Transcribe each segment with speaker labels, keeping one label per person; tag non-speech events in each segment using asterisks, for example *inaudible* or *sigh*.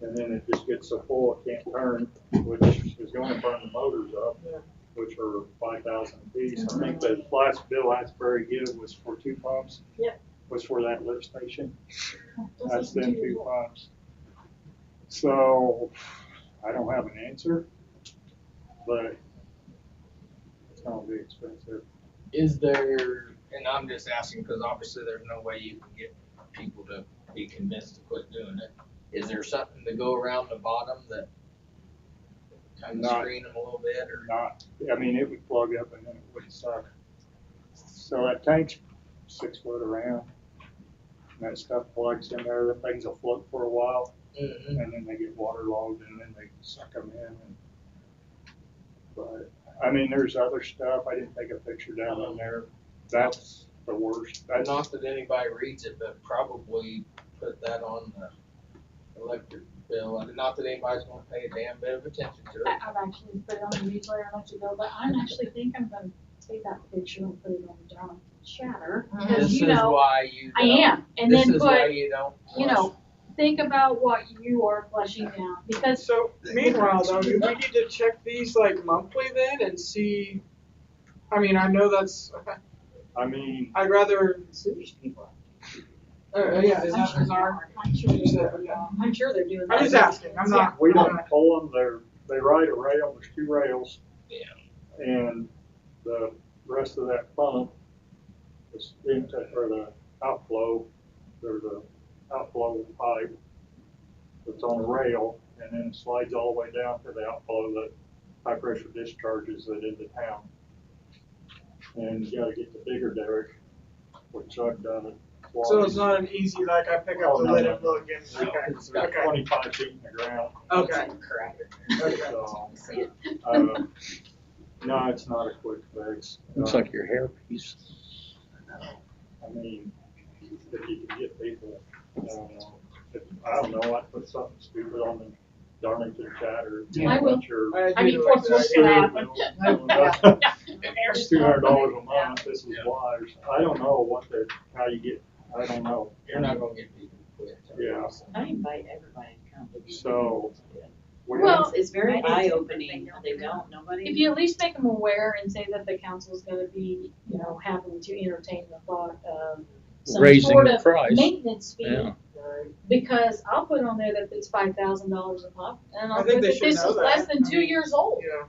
Speaker 1: and then it just gets so full it can't turn, which is going to burn the motors up, which are five thousand apiece. I think the last bill Asbury gave was for two pumps.
Speaker 2: Yep.
Speaker 1: Was for that lift station. That's
Speaker 2: That's
Speaker 1: them two pumps. So, I don't have an answer, but it's gonna be expensive.
Speaker 3: Is there, and I'm just asking because obviously there's no way you can get people to be convinced to quit doing it. Is there something to go around the bottom that kind of
Speaker 1: Not-
Speaker 3: screen them a little bit or?
Speaker 1: Not, I mean, it would plug up and then it would suck. So that tank's six foot around. And that stuff plugs in there, the things will float for a while
Speaker 3: Mhm.
Speaker 1: and then they get waterlogged and then they suck them in and. But, I mean, there's other stuff. I didn't take a picture down on there. That's the worst. That's,
Speaker 3: Not that anybody reads it, but probably put that on the electric bill. And not that anybody's gonna pay a damn bit of attention to it.
Speaker 2: I've actually put it on the newsletter a month ago, but I'm actually think I'm gonna take that picture and put it on the down chatter, because
Speaker 3: This
Speaker 2: you
Speaker 3: is
Speaker 2: know,
Speaker 3: why you
Speaker 2: I
Speaker 3: don't-
Speaker 2: am, and then
Speaker 3: This is why
Speaker 2: put,
Speaker 3: you don't.
Speaker 2: you know, think about what you are flushing down, because
Speaker 4: So meanwhile, though, do we need to check these like monthly then and see? I mean, I know that's, *laughs*
Speaker 1: I mean,
Speaker 4: I'd rather,
Speaker 5: sewage people.
Speaker 4: uh, yeah, is that, is our,
Speaker 2: I'm sure,
Speaker 4: is that, yeah.
Speaker 5: I'm sure they're doing.
Speaker 4: I'm just
Speaker 5: that.
Speaker 4: asking,
Speaker 2: *laughs*
Speaker 4: I'm not.
Speaker 1: we don't pull them. They're, they ride a rail. There's two rails.
Speaker 3: Yeah.
Speaker 1: And the rest of that pump, is into, or the outflow, there's a outflow pipe that's on a rail and then it slides all the way down to the outflow that high pressure discharges that into town. And you gotta get the bigger derrick, which I've done it twice.
Speaker 4: So it's not an easy, like, I pick up
Speaker 1: Oh,
Speaker 4: the
Speaker 1: no,
Speaker 4: lid
Speaker 1: no,
Speaker 4: and look and,
Speaker 1: No,
Speaker 4: okay,
Speaker 1: It's got
Speaker 4: okay.
Speaker 1: twenty-five feet in the ground.
Speaker 4: okay,
Speaker 5: Crap.
Speaker 4: okay.
Speaker 1: So,
Speaker 5: See it.
Speaker 1: um, No, it's not a quick fix.
Speaker 6: Looks
Speaker 1: Uh,
Speaker 6: like your hairpiece.
Speaker 1: I mean, if you can get people, I don't know, if, I don't know, I put something stupid on the Darlington chat or.
Speaker 2: Yeah. I will. I
Speaker 4: do
Speaker 2: mean,
Speaker 4: like
Speaker 2: what's
Speaker 4: that.
Speaker 2: this gonna happen?
Speaker 1: It's two hundred dollars a month, this is why, or something. I don't know what the, how you get, I don't know.
Speaker 3: You're not gonna get people to quit.
Speaker 1: Yeah.
Speaker 5: I invite everybody to come. to these
Speaker 1: So-
Speaker 5: meetings.
Speaker 1: We-
Speaker 2: Well,
Speaker 5: It's very
Speaker 2: I
Speaker 5: eye opening, they don't, nobody.
Speaker 2: If you at least make them aware and say that the council's gonna be, you know, having to entertain the thought of some
Speaker 6: Raising
Speaker 2: sort
Speaker 6: the
Speaker 2: of
Speaker 6: price.
Speaker 2: maintenance fee,
Speaker 6: Yeah.
Speaker 2: because I'll put on there that it's five thousand dollars a month, and
Speaker 4: I
Speaker 2: I'll
Speaker 4: think
Speaker 2: put that
Speaker 4: they
Speaker 2: this
Speaker 4: should know
Speaker 2: is less
Speaker 4: that.
Speaker 2: than
Speaker 4: I
Speaker 2: two
Speaker 4: mean,
Speaker 2: years old.
Speaker 4: Yeah.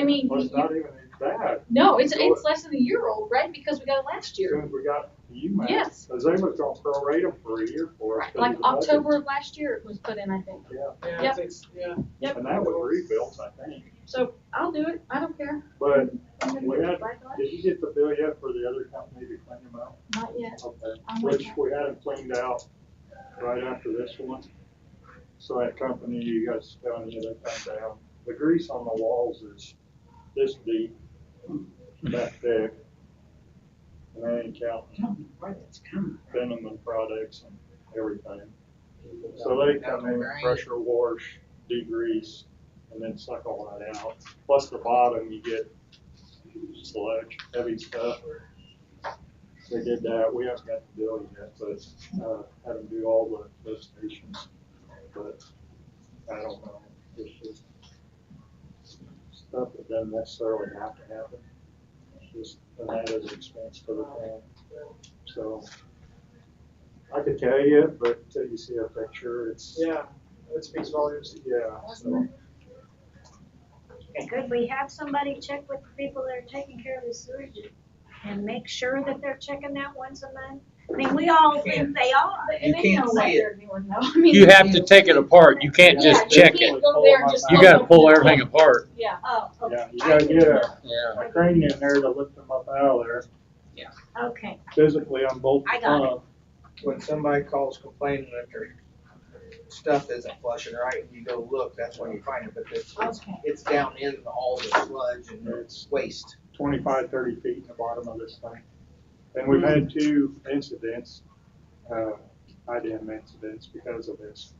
Speaker 2: I mean,
Speaker 1: Well, it's
Speaker 2: you-
Speaker 1: not even that.
Speaker 2: no, it's,
Speaker 1: Go
Speaker 2: it's less than a year old, right, because we got it last
Speaker 1: As soon
Speaker 2: year,
Speaker 1: as we got you, man.
Speaker 2: Yes.
Speaker 1: Cause they was gonna prorate them for a year for us. 'cause
Speaker 2: like
Speaker 1: of the budget.
Speaker 2: October of last year it was put in, I think.
Speaker 4: Yeah,
Speaker 2: Yep.
Speaker 4: it's- yeah.
Speaker 2: Yep.
Speaker 1: And that was rebuilt, I think.
Speaker 2: So I'll do it, I don't care.
Speaker 1: But
Speaker 2: I'm gonna
Speaker 1: we
Speaker 2: do
Speaker 1: had,
Speaker 2: it right away.
Speaker 1: did you get the bill yet for the other company to clean them out?
Speaker 2: Not yet,
Speaker 1: Okay.
Speaker 2: I'm with
Speaker 1: Which we had them cleaned out right after this one. So that company you guys found it, they found out. The grease on the walls is this deep, that thick. And I ain't counting venom and products and everything. So they come in, pressure wash, degrease, and then suck all that out. Plus the bottom, you get sludge, heavy stuff. They did that. We haven't got the bill yet, but, uh, had them do all the, those stations. But I don't know. It's just stuff that doesn't necessarily have to happen. It's just an added expense for the town. So I could tell you, but till you see a picture, it's.
Speaker 4: Yeah, that speaks volumes.
Speaker 1: Yeah, so,
Speaker 7: Could we have somebody check with the people that are taking care of the sewage and make sure that they're checking that once a month? I mean, we all think they are.
Speaker 2: But-
Speaker 3: You
Speaker 2: And they
Speaker 3: can't
Speaker 2: know *laughs* what
Speaker 3: see it.
Speaker 2: they're doing though, I mean.
Speaker 6: You have to take it apart. You can't just
Speaker 2: Yeah, you
Speaker 6: check it.
Speaker 2: can't go there and just
Speaker 6: You
Speaker 2: look
Speaker 6: gotta
Speaker 2: at
Speaker 6: pull
Speaker 2: the-
Speaker 6: everything apart.
Speaker 2: Yeah,
Speaker 7: Oh, okay.
Speaker 1: yeah, you gotta get a,
Speaker 6: Yeah.
Speaker 1: a crane in there to lift them up out of there,
Speaker 7: Okay,
Speaker 1: physically unbolt
Speaker 7: I
Speaker 1: the
Speaker 7: got it.
Speaker 1: pump. *laughs*
Speaker 3: when
Speaker 4: *laughs*
Speaker 3: somebody calls complaining that their stuff isn't flushing right, and you go look, that's when you find it, but it's, it's,
Speaker 2: okay.
Speaker 3: it's down in all the sludge and it's waste.
Speaker 1: Twenty-five, thirty feet in the bottom of this thing. And we've had
Speaker 7: Mm-hmm.
Speaker 1: two incidents, uh, IDM incidents because of this.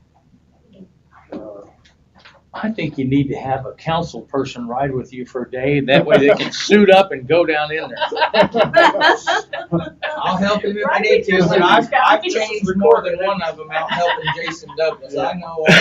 Speaker 1: Uh,
Speaker 6: I think you need to have a council person ride with you for a day. That way they can suit up and go down in there.
Speaker 3: I'll help him if I
Speaker 2: Right,
Speaker 3: need to,
Speaker 2: because
Speaker 3: but I've,
Speaker 2: we've got
Speaker 3: I've
Speaker 2: these *laughs*
Speaker 3: changed more than one of them out helping Jason Douglas, I know all